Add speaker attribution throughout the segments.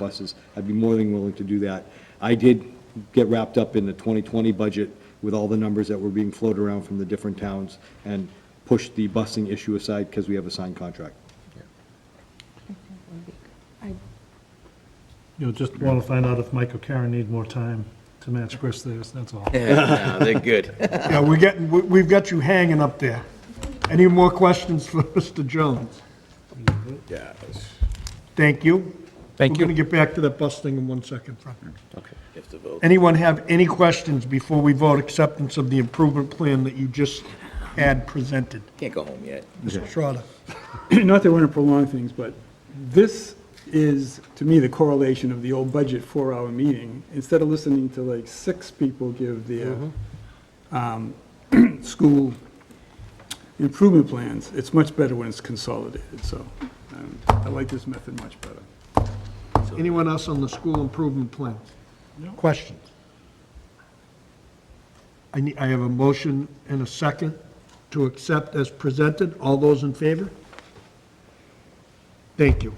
Speaker 1: buses, I'd be more than willing to do that. I did get wrapped up in the 2020 budget with all the numbers that were being floated around from the different towns and pushed the busing issue aside because we have a signed contract.
Speaker 2: I
Speaker 3: You'll just want to find out if Mike or Karen need more time to match Chris theirs, that's all.
Speaker 4: Yeah, no, they're good.
Speaker 3: Yeah, we're getting, Uh, we- we've got you hanging up there. Any more questions for Mr. Jones?
Speaker 4: Yeah.
Speaker 3: Thank you.
Speaker 5: Thank
Speaker 3: We're going to get back to that bus thing in one second, Frank.
Speaker 4: Okay. You have to vote.
Speaker 3: Anyone have any questions before we vote acceptance of the improvement plan that you just had presented?
Speaker 4: Can't go home yet.
Speaker 3: Mr. Schroeder.
Speaker 6: not that I want to prolong things, but this is, to me, the correlation of the old budget four-hour meeting. Instead of listening to like six people give their um, school improvement plans, it's much better when it's consolidated, so um, I like this method much better.
Speaker 3: Anyone else on the school improvement plan? Questions? I need, I have a motion and a second to accept as presented. All those in favor? Thank you.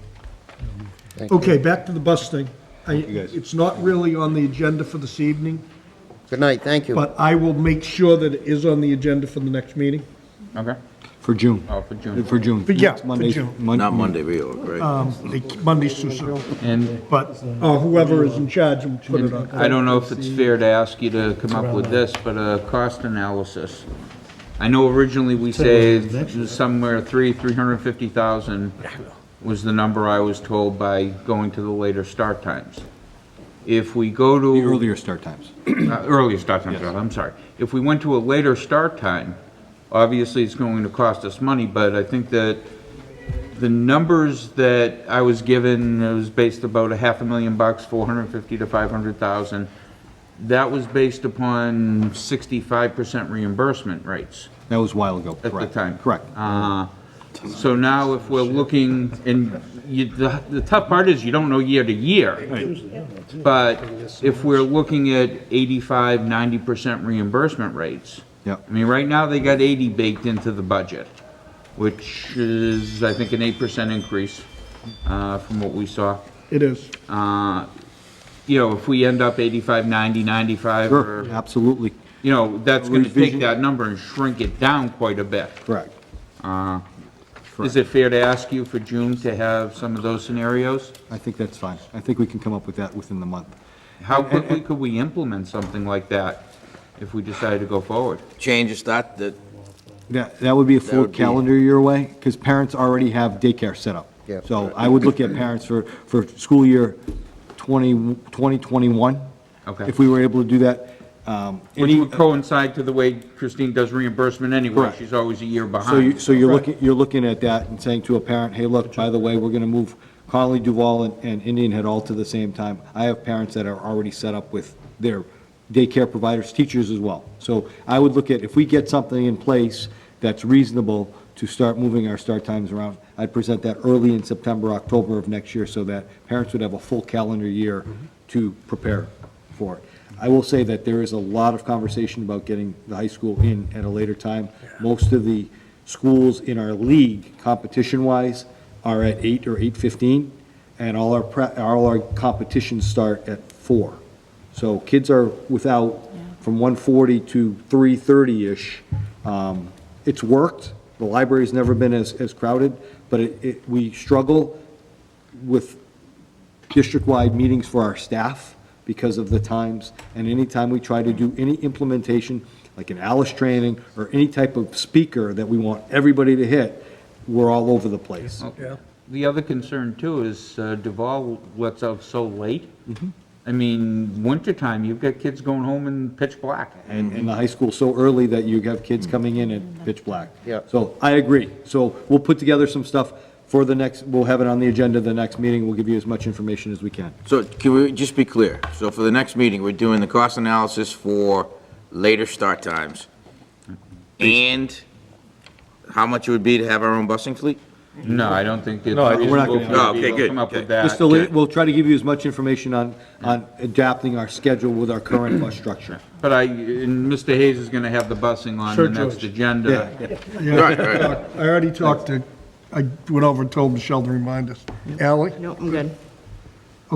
Speaker 3: Okay, back to the bus thing. I,
Speaker 1: guys.
Speaker 3: it's not really on the agenda for this evening,
Speaker 7: Good night, thank you.
Speaker 3: but I will make sure that it is on the agenda for the next meeting.
Speaker 5: Okay.
Speaker 1: For June.
Speaker 5: Oh, for June.
Speaker 1: For June.
Speaker 3: For- yeah,
Speaker 1: Next
Speaker 3: for
Speaker 1: Monday's-
Speaker 3: June.
Speaker 1: Mon-
Speaker 4: Not Monday, Rio, right?
Speaker 3: Um, they- Monday's too soon,
Speaker 5: And
Speaker 3: but, uh, whoever is in charge will put it on.
Speaker 5: I don't know if it's fair to ask you to come up with this, but a cost analysis. I know originally we saved somewhere three, three hundred and fifty thousand was the number I was told by going to the later start times. If we go to.
Speaker 1: The earlier start times.
Speaker 5: Uh, Earlier start time, I'm sorry. If we went to a later start time, obviously it's going to cost us money, but I think that the numbers that I was given, it was based about a half a million bucks, 450 to 500,000. That was based upon 65% reimbursement rates
Speaker 1: That was a while ago,
Speaker 5: at
Speaker 1: correct?
Speaker 5: the time.
Speaker 1: Correct.
Speaker 5: Uh, So now if we're looking, and you, the the tough part is you don't know year to year. But if we're looking at 85, 90% reimbursement rates.
Speaker 1: Yep.
Speaker 5: I mean, right now, they got 80 baked into the budget, which is, I think, an 8% increase uh, from what we saw.
Speaker 3: It is.
Speaker 5: Uh, You know, if we end up 85, 90, 95,
Speaker 1: Sure,
Speaker 5: or,
Speaker 1: absolutely,
Speaker 5: you know, that's going to
Speaker 1: Revision.
Speaker 5: take that number and shrink it down quite a bit.
Speaker 1: correct. Uh-huh.
Speaker 5: Is it fair to ask you for June to have some of those scenarios?
Speaker 1: I think that's fine. I think we can come up with that within the month.
Speaker 5: How quickly could we implement something like that if we decided to go forward?
Speaker 4: Change is that, that,
Speaker 1: That, that would be a full
Speaker 4: would be-
Speaker 1: calendar year away, because parents already have daycare set up.
Speaker 7: Yeah.
Speaker 1: So I would look at parents for, for school year 20, 2021.
Speaker 5: Okay.
Speaker 1: If we were able to do that. um,
Speaker 5: Which
Speaker 1: any-
Speaker 5: would coincide to the way Christine does reimbursement anyway.
Speaker 1: Correct.
Speaker 5: She's always a year
Speaker 1: So you,
Speaker 5: behind.
Speaker 1: so you're looking, you're looking at that and saying to a parent, hey, look, by the way, we're gonna move Conley, Duval, and- and Indian Head all to the same time. I have parents that are already set up with their daycare providers, teachers as well. So I would look at, if we get something in place that's reasonable to start moving our start times around, I'd present that early in September, October of next year, so that parents would have a full calendar year to prepare for it. I will say that there is a lot of conversation about getting the high school in at a later time. Most of the schools in our league, competition-wise, are at eight or eight-fifteen, and all our, pre- all our competitions start at four. So kids are without from one-forty to three-thirty-ish. Um, it's worked, the library's never been as, as crowded, but it, it, we struggle with district-wide meetings for our staff because of the times, and anytime we try to do any implementation, like an Alice training, or any type of speaker that we want everybody to hit, we're all over the place.
Speaker 6: Oh.
Speaker 5: The other concern too is uh, Duval lets out so late.
Speaker 1: Mm-hmm.
Speaker 5: I mean, wintertime, you've got kids going home in pitch black.
Speaker 1: and, and the high school so early that you have kids coming in at pitch black.
Speaker 7: Yeah.
Speaker 1: So I agree. So we'll put together some stuff for the next, we'll have it on the agenda the next meeting. We'll give you as much information as we can.
Speaker 4: so can we just be clear? So for the next meeting, we're doing the cost analysis for later start times and how much it would be to have our own busing fleet?
Speaker 5: No, I don't think it's
Speaker 1: No, I- we're not gonna-
Speaker 5: reasonable for
Speaker 4: Okay,
Speaker 5: you to
Speaker 4: good,
Speaker 5: come up with
Speaker 4: okay.
Speaker 5: that.
Speaker 1: Just a li- we'll try to give you as much information on, on adapting our schedule with our current bus structure.
Speaker 5: But I, and Mr. Hayes is gonna have the busing on
Speaker 3: Sure,
Speaker 5: the next
Speaker 3: George.
Speaker 5: agenda.
Speaker 1: Yeah,
Speaker 4: Right, right.
Speaker 3: I already talked to, I went over and told Michelle to remind us. Ally,
Speaker 2: No, I'm good.